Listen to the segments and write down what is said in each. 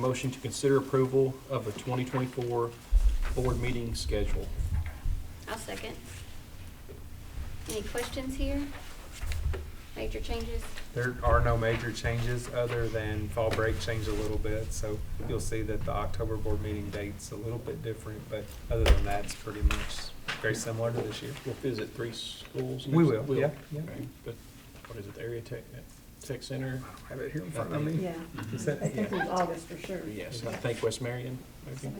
Motion to consider approval of the 2024 board meeting schedule. I'll second. Any questions here? Major changes? There are no major changes other than fall break changed a little bit, so you'll see that the October board meeting date's a little bit different, but other than that, it's pretty much very similar to this year. We'll visit three schools. We next- will, yeah, yeah. Okay, But what is it, the area tech, tech center? Have it here in front of me. Yeah, Is I that- think it yeah. was August for sure. Yes, I think West Marion, maybe.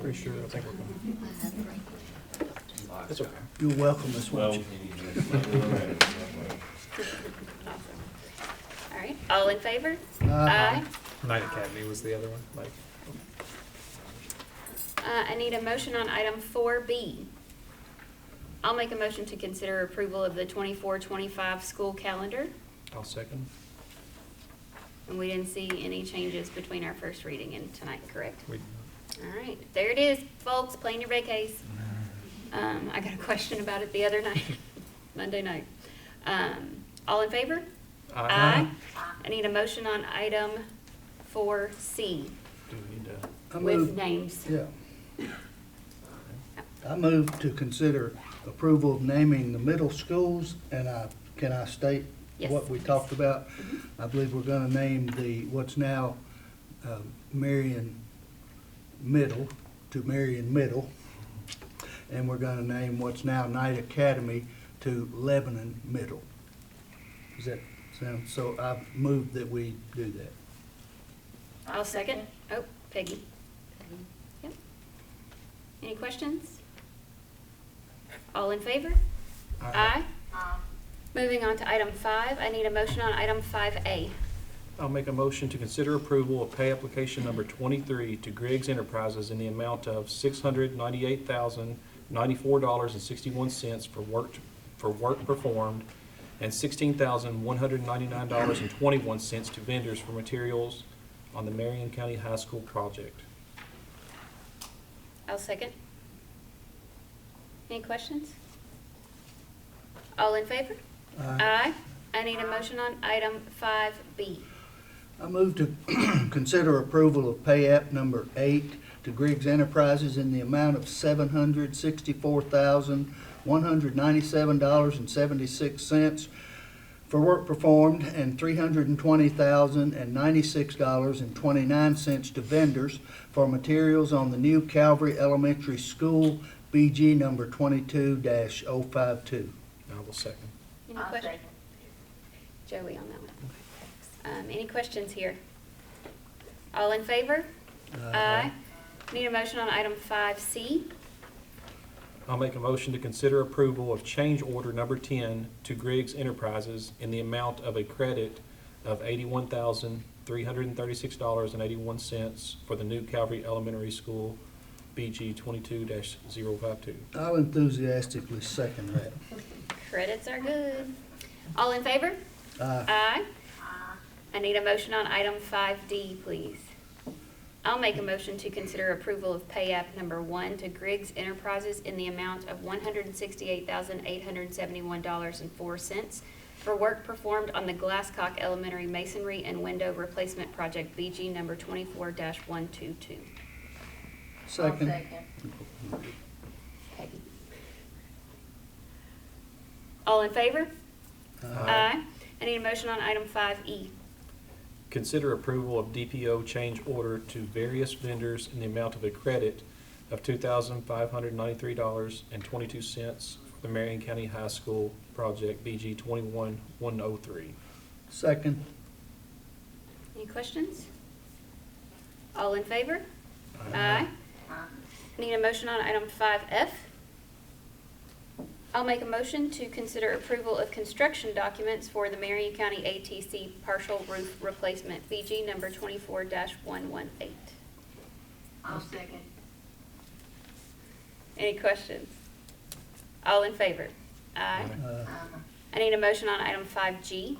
Pretty sure, I think we're going. That's okay. You're welcome, Miss Well, Welch. All right, all in favor? Aye. Night Academy was the other one, like, Uh, I need a motion on item four B. I'll make a motion to consider approval of the 24-25 school calendar, I'll second. and we didn't see any changes between our first reading and tonight, correct? we, All right, there it is, folks, plan your vacays. Um, I got a question about it the other night, Monday night. Um, all in favor? I need a motion on item four C Do we need to, I with move, names. yeah. I move to consider approval of naming the middle schools, and I, can I state Yes. what we talked about? I believe we're gonna name the, what's now uh, Marion Middle to Marion Middle, and we're gonna name what's now Knight Academy to Lebanon Middle. Does that sound, so I move that we do that. I'll second. Oh, Peggy. Yep. Any questions? All in favor? Aye. Moving on to item five, I need a motion on item five A. I'll make a motion to consider approval of pay application number 23 to Griggs Enterprises in the amount of $698,094.61 for work, for work performed, and $16,199.21 to vendors for materials on the Marion County High School project. I'll second. Any questions? All in favor? Aye. I need a motion on item five B. I move to consider approval of pay app number eight to Griggs Enterprises in the amount of seven hundred sixty-four thousand, one hundred ninety-seven dollars and seventy-six cents for work performed and three hundred and twenty thousand and ninety-six dollars and twenty-nine cents to vendors for materials on the new Calvary Elementary School BG number twenty-two oh 52 I will second. Any questions? Joey on that one. Um, any questions here? All in favor? Aye. Need a motion on item five C. I'll make a motion to consider approval of change order number 10 to Griggs Enterprises in the amount of a credit of $81,336.81 for the new Calvary Elementary School BG 22-052. I'll enthusiastically second that. Credits are good. All in favor? Aye. Aye. I need a motion on item five D, please. I'll make a motion to consider approval of pay app number one to Griggs Enterprises in the amount of one hundred and sixty-eight thousand, eight hundred and seventy-one dollars and four cents for work performed on the Glasscock Elementary Masonry and Window Replacement Project BG number twenty-four one two two. Second. Peggy. All in favor? Aye. I need a motion on item five E. Consider approval of DPO change order to various vendors in the amount of a credit of $2,593.22 for the Marion County High School project BG 21103. Second. Any questions? All in favor? Aye. Need a motion on item five F? I'll make a motion to consider approval of construction documents for the Marion County ATC partial roof replacement, BG number twenty-four one one eight. I'll second. Any questions? All in favor? Aye. I need a motion on item five G.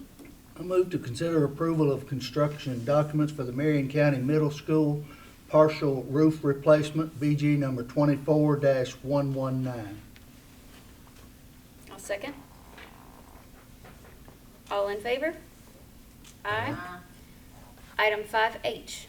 I move to consider approval of construction documents for the Marion County Middle School partial roof replacement, BG number twenty-four one one nine. I'll second. All in favor? Aye. Item five H.